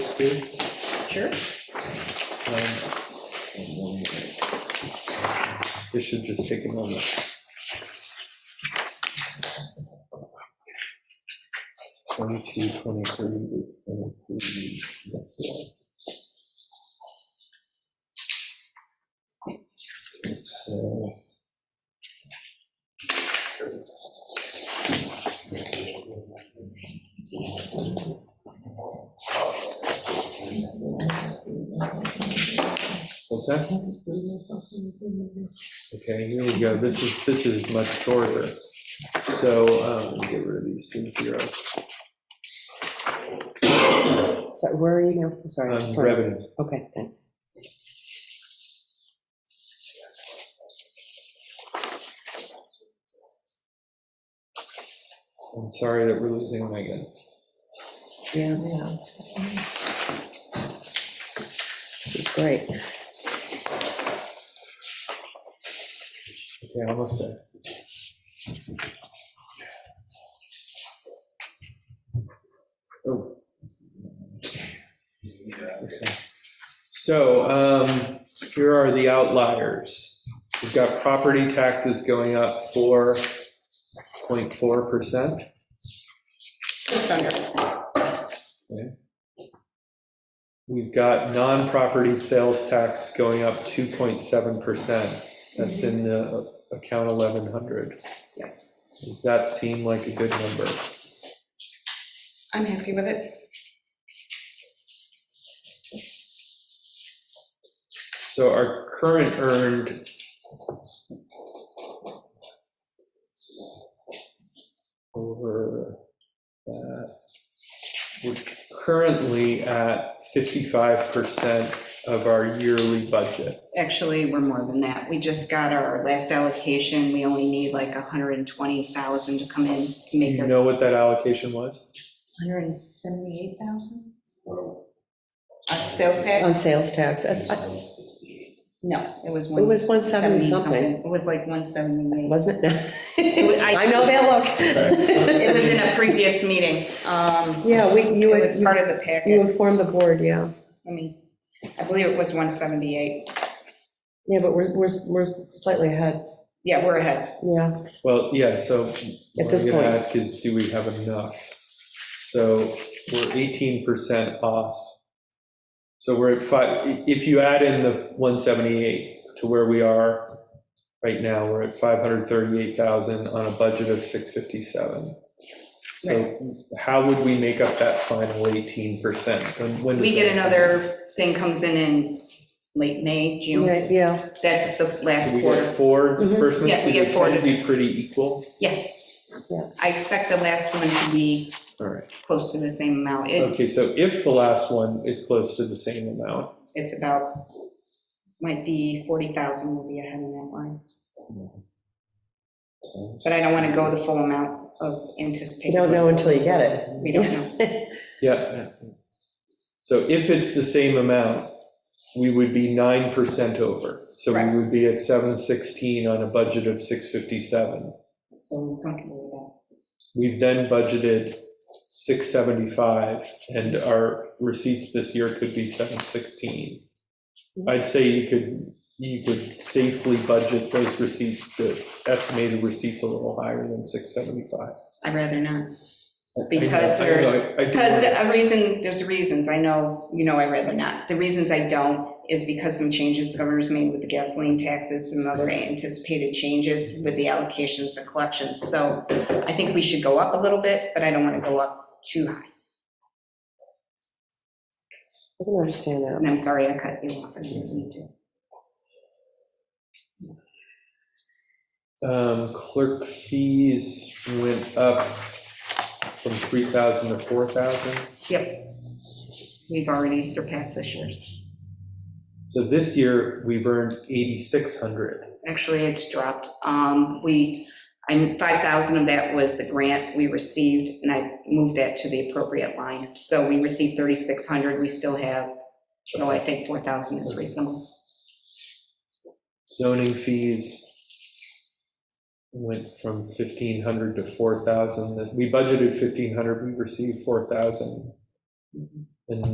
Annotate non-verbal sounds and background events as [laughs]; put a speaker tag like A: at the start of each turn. A: too?
B: Sure.
A: Um, This should just take a moment. Twenty-two, twenty-three, twenty-three. So. What's that? Okay, here we go. This is, this is much shorter. So, um, let me get rid of these two zeros.
B: So where are you now? I'm Sorry. I
A: Um,
B: just wanted-
A: revenue.
B: Okay, thanks.
A: I'm sorry that we're losing Megan.
B: Yeah, yeah. It's great.
A: Okay, almost there. Oh. Okay. So, um, here are the outliers. We've got property taxes going up 4.4%.
B: Just under.
A: We've got non-property sales tax going up 2.7%. That's in the account 1100.
B: Yeah.
A: Does that seem like a good number?
C: I'm happy with it.
A: So our current earned. Over that. We're currently at 55% of our yearly budget.
C: Actually, we're more than that. We just got our last allocation. We only need like 120,000 to come in to
A: Do
C: make
A: you
C: it.
A: know what that allocation was?
C: 178,000?
A: Mm-hmm.
C: Sales
B: On
C: tax?
B: sales tax. I- I-
C: No, it was
B: It
C: one.
B: was 170 something,
C: It was like 178.
B: wasn't it?
C: was- I-
B: [laughs] I know
C: It was
B: that
C: in a previous meeting.
B: look.
C: Um,
B: Yeah, we,
C: It
B: you,
C: was
B: you
C: part of the packet.
B: informed the board, yeah.
C: I mean, I believe it was 178.
B: Yeah, but we're, we're, we're slightly ahead,
C: Yeah, we're ahead.
B: yeah.
A: Well, yeah, so what
B: this
A: I'm gonna
B: point.
A: ask is, do we have enough? So we're eighteen percent off. So we're at five, i- if you add in the one seventy-eight to where we are right now, we're at five hundred thirty-eight thousand on a budget of six fifty-seven. So how would we make up that final eighteen percent?
C: We get another thing comes in in late May, June.
B: Yeah, Yeah,
C: That's the last
A: So we
C: quarter. Mm-hmm.
A: get four disbursements?
C: Yeah, we
A: Do they
C: get four.
A: tend to Be pretty equal?
C: Yes.
B: Yeah.
C: I expect the last one to be
A: All right.
C: close to the same amount. It,
A: Okay, so if the last one is close to the same amount,
C: it's about, might be 40,000 will be ahead in that line. But I don't want to go the full amount of
B: you
C: anticipated.
B: don't know until you get it.
C: We don't know.
A: Yeah. So if it's the same amount, we would be 9% over. So
C: Correct.
A: we would be at 716 on a budget of 657.
C: So I'm comfortable
A: We've then budgeted 675, and our receipts this year could be 716.
C: Mm-hmm.
A: I'd say you could, you could safely budget those receipts, the estimated receipts a little higher than 675.
C: with that. I'd rather not.
A: I- I know-
C: Because
A: I know,
C: there's-
A: I- I do
C: Because
A: worry.
C: a reason, there's reasons, I know, you know, I'd rather not. The reasons I don't is because some changes the governor's made with the gasoline taxes, some other anticipated changes with the allocations and collections. So I think we should go up a little bit, but I don't want to go up too high.
B: I can understand that.
C: And I'm sorry I cut you off, I didn't mean to.
A: Um, Clerk fees went up from 3,000 to 4,000.
C: Yep. We've already surpassed this year.
A: So this year, we've earned 8,600.
C: Actually, it's dropped. Um, We, I, 5,000 of that was the grant we received, and I moved that to the appropriate line. So we received 3,600, we still have, so I think 4,000 is reasonable.
A: Zoning fees went from 1,500 to 4,000. We budgeted 1,500, we received 4,000. And